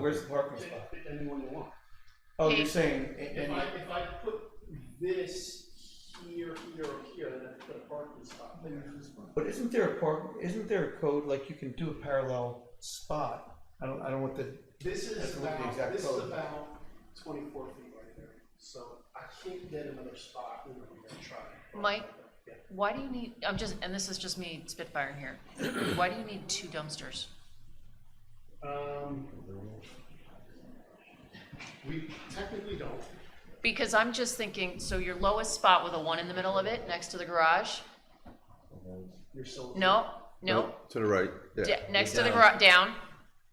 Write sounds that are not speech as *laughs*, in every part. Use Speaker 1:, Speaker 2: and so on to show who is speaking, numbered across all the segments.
Speaker 1: Where's the parking spot?
Speaker 2: Pick anyone you want.
Speaker 1: Oh, you're saying, a-
Speaker 2: If
Speaker 1: any-
Speaker 2: I, if I put this here, here, or here, then I have to put a parking spot there.
Speaker 1: but isn't there a park, isn't there a code, like you can do a parallel spot? I don't, I don't want the,
Speaker 2: This
Speaker 1: That's
Speaker 2: is
Speaker 1: what the
Speaker 2: about,
Speaker 1: exact
Speaker 2: this is
Speaker 1: code.
Speaker 2: about twenty-four feet right there, so I can't get another spot, you know, I'm gonna try.
Speaker 3: Mike?
Speaker 2: Yeah.
Speaker 3: Why do you need, I'm just, and this is just me spitfiring here, why do you need two dumpsters?
Speaker 2: Um. We technically don't,
Speaker 3: Because I'm just thinking, so your lowest spot with a one in the middle of it, next to the garage,
Speaker 2: you're still.
Speaker 3: no, no,
Speaker 4: To the right,
Speaker 3: da-
Speaker 4: yeah.
Speaker 3: next to the
Speaker 5: Down.
Speaker 3: garage, down,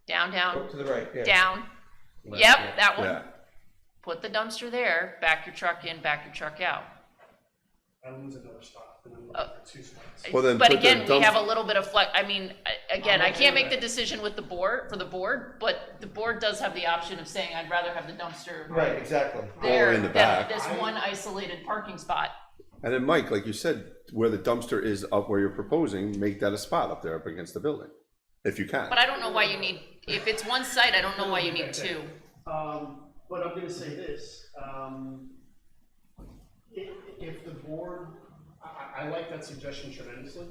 Speaker 3: down, down,
Speaker 1: to the right, yeah.
Speaker 3: down.
Speaker 5: Left, yeah.
Speaker 3: Yep, that one.
Speaker 4: Yeah,
Speaker 3: Put the dumpster there, back your truck in, back your truck out.
Speaker 2: I lose another spot, and
Speaker 3: Oh.
Speaker 2: I'm looking for two spots.
Speaker 4: Well, then
Speaker 3: But
Speaker 4: put the
Speaker 3: again, we have a
Speaker 4: dumpster-
Speaker 3: little bit of flex, I mean, I- again,
Speaker 2: I'm
Speaker 3: I
Speaker 2: okay
Speaker 3: can't
Speaker 2: with
Speaker 3: make the
Speaker 2: that.
Speaker 3: decision with the board, for the board, but the board does have the option of saying, I'd rather have the dumpster
Speaker 1: Right, exactly.
Speaker 3: there
Speaker 4: in the
Speaker 3: than
Speaker 4: back.
Speaker 3: this one isolated parking spot.
Speaker 4: and then Mike, like you said, where the dumpster is up where you're proposing, make that a spot up there up against the building, if you can.
Speaker 3: But I don't know why you need, if it's one site, I don't know why you need two.
Speaker 2: Um, but I'm gonna say this, um, if, if the board, I, I, I like that suggestion tremendously.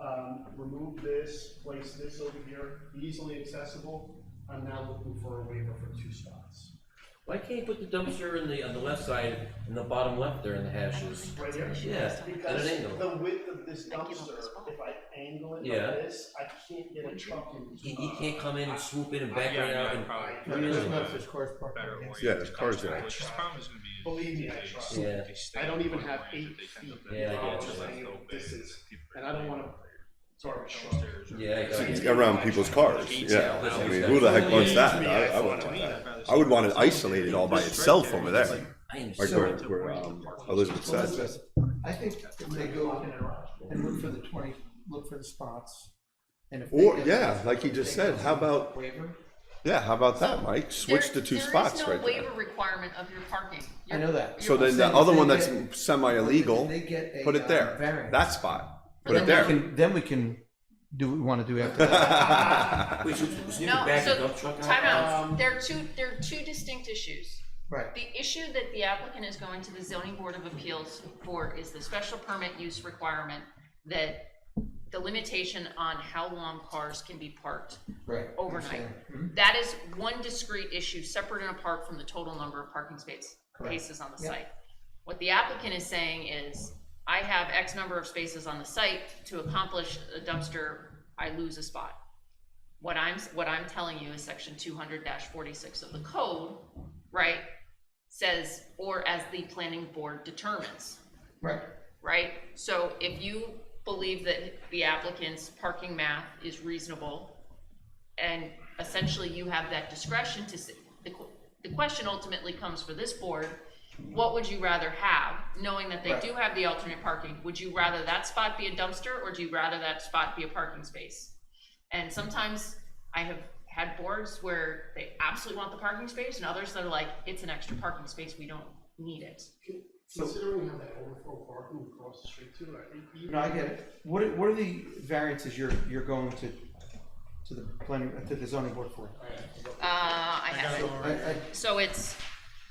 Speaker 2: Um, remove this, place this over here, easily accessible, I'm now looking for a waiver for two spots.
Speaker 5: Why can't you put the dumpster in the, on the left side, in the bottom left there in the hashes?
Speaker 2: Right here,
Speaker 5: Yeah, at
Speaker 2: because
Speaker 5: an angle.
Speaker 2: the width of this
Speaker 3: Thank you,
Speaker 2: dumpster,
Speaker 3: Mr. Spock.
Speaker 2: if I angle it like
Speaker 5: Yeah.
Speaker 2: this, I can't get a truck in.
Speaker 5: He, he can't come in and swoop in and back
Speaker 6: Yeah,
Speaker 5: right out
Speaker 6: yeah,
Speaker 5: and.
Speaker 6: probably.
Speaker 1: There's no
Speaker 6: Better
Speaker 1: such cars parking.
Speaker 6: orient.
Speaker 4: Yeah, there's cars there.
Speaker 6: Which is problem is gonna be.
Speaker 2: Believe me, I
Speaker 6: they-
Speaker 2: tried.
Speaker 6: they
Speaker 5: Yeah.
Speaker 6: stay
Speaker 2: I don't even
Speaker 6: on
Speaker 2: have
Speaker 6: lanes
Speaker 2: eight
Speaker 6: that they tend to
Speaker 2: feet.
Speaker 6: bend
Speaker 5: Yeah, I
Speaker 6: down
Speaker 5: get
Speaker 6: to
Speaker 5: you.
Speaker 6: left
Speaker 2: Saying
Speaker 6: open.
Speaker 2: this is-
Speaker 6: People
Speaker 2: and I don't wanna- Sorry, Sean.
Speaker 6: downstairs or-
Speaker 5: Yeah, I got
Speaker 4: It's
Speaker 5: you.
Speaker 4: around people's cars, yeah. I mean, who the heck wants that? I, I wouldn't want that. I would want it isolated all by itself over there,
Speaker 5: I
Speaker 4: like
Speaker 5: understand.
Speaker 4: where, where, um, Elizabeth
Speaker 1: Well,
Speaker 4: said.
Speaker 1: that's- I think if they go and look for the twenty, look for the spots, and if. they
Speaker 4: Or,
Speaker 1: get-
Speaker 4: yeah, like he just said, how about,
Speaker 1: Waiver,
Speaker 4: yeah, how about that, Mike? Switch the two spots
Speaker 3: There is
Speaker 4: right
Speaker 3: no
Speaker 4: there.
Speaker 3: waiver requirement of your parking.
Speaker 1: I know that.
Speaker 4: So then the
Speaker 1: Saying if
Speaker 4: other
Speaker 1: they
Speaker 4: one that's
Speaker 1: get-
Speaker 4: semi-illegal,
Speaker 1: They get a,
Speaker 4: put
Speaker 1: uh,
Speaker 4: it there,
Speaker 1: variance.
Speaker 4: that spot, put
Speaker 1: Then
Speaker 4: it
Speaker 1: we
Speaker 4: there.
Speaker 1: can- Then we can do what we wanna do after
Speaker 4: *laughs*
Speaker 1: that.
Speaker 3: *laughs*
Speaker 5: We should sneak
Speaker 3: No,
Speaker 5: back the
Speaker 3: so,
Speaker 5: dump truck out.
Speaker 3: time
Speaker 2: Um,
Speaker 3: out. there are two, there are two distinct issues.
Speaker 1: Right.
Speaker 3: The issue that the applicant is going to the zoning board of appeals for is the special permit use requirement that the limitation on how long cars can be parked
Speaker 1: Right.
Speaker 3: overnight.
Speaker 1: understand. Mm-hmm.
Speaker 3: That is one discrete issue, separate and apart from the total number of parking space,
Speaker 1: Correct.
Speaker 3: cases on the
Speaker 1: Yeah.
Speaker 3: site. What the applicant is saying is, I have X number of spaces on the site, to accomplish a dumpster, I lose a spot. What I'm, what I'm telling you is section two hundred forty-six of the code, right, says, or as the planning board determines
Speaker 1: Right,
Speaker 3: right? So if you believe that the applicant's parking math is reasonable, and essentially you have that discretion to, s- the, qu- the question ultimately comes for this board, what would you rather have, knowing that they
Speaker 1: Right.
Speaker 3: do have the alternate parking? Would you rather that spot be a dumpster, or do you rather that spot be a parking space? And sometimes I have had boards where they absolutely want the parking space, and others that are like, it's an extra parking space, we don't need it.
Speaker 2: Considering how that overflow parking across the street too, I think. even-
Speaker 1: no, I get it. What are, what are the variances you're, you're going to, to the planning, to the zoning board for?
Speaker 2: All right.
Speaker 3: Uh, I have it.
Speaker 1: So I, I,
Speaker 3: So it's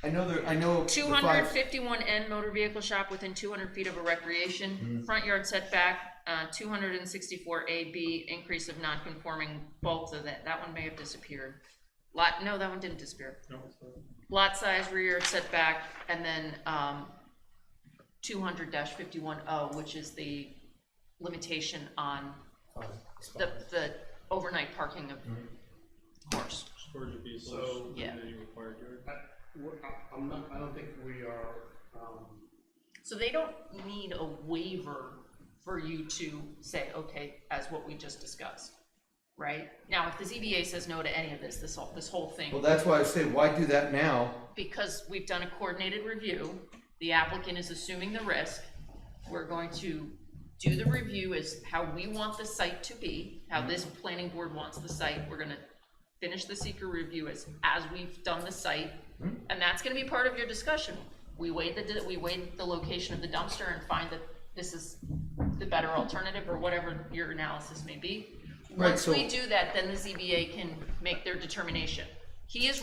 Speaker 1: I know there, I know. the
Speaker 3: two
Speaker 1: five-
Speaker 3: hundred fifty-one N motor vehicle shop within two hundred feet of a recreation, front yard setback, uh, two hundred and sixty-four A B, increase of non-conforming bulk of that, that one may have disappeared. Lot, no, that one didn't disappear. Lot size, rear yard setback, and then, um, two hundred fifty-one O, which is the limitation on the, the overnight parking of horse.
Speaker 2: So,
Speaker 3: Yeah.
Speaker 2: I, we're- I- I'm not, I don't think we are, um,
Speaker 3: So they don't need a waiver for you to say, okay, as what we just discussed, right? Now, if the ZBA says no to any of this, this whole, this whole
Speaker 1: Well,
Speaker 3: thing,
Speaker 1: that's why I say, why do that now?
Speaker 3: because we've done a coordinated review, the applicant is assuming the risk, we're going to do the review as how we want the site to be, how this planning board wants the site, we're gonna finish the seeker review as, as we've done the site,
Speaker 1: Hmm?
Speaker 3: and that's gonna be part of your discussion. We weighed the, we weighed the location of the dumpster and find that this is the better alternative, or whatever your analysis may be.
Speaker 1: Right,
Speaker 3: Once
Speaker 1: so-
Speaker 3: we do that, then the ZBA can make their determination. He is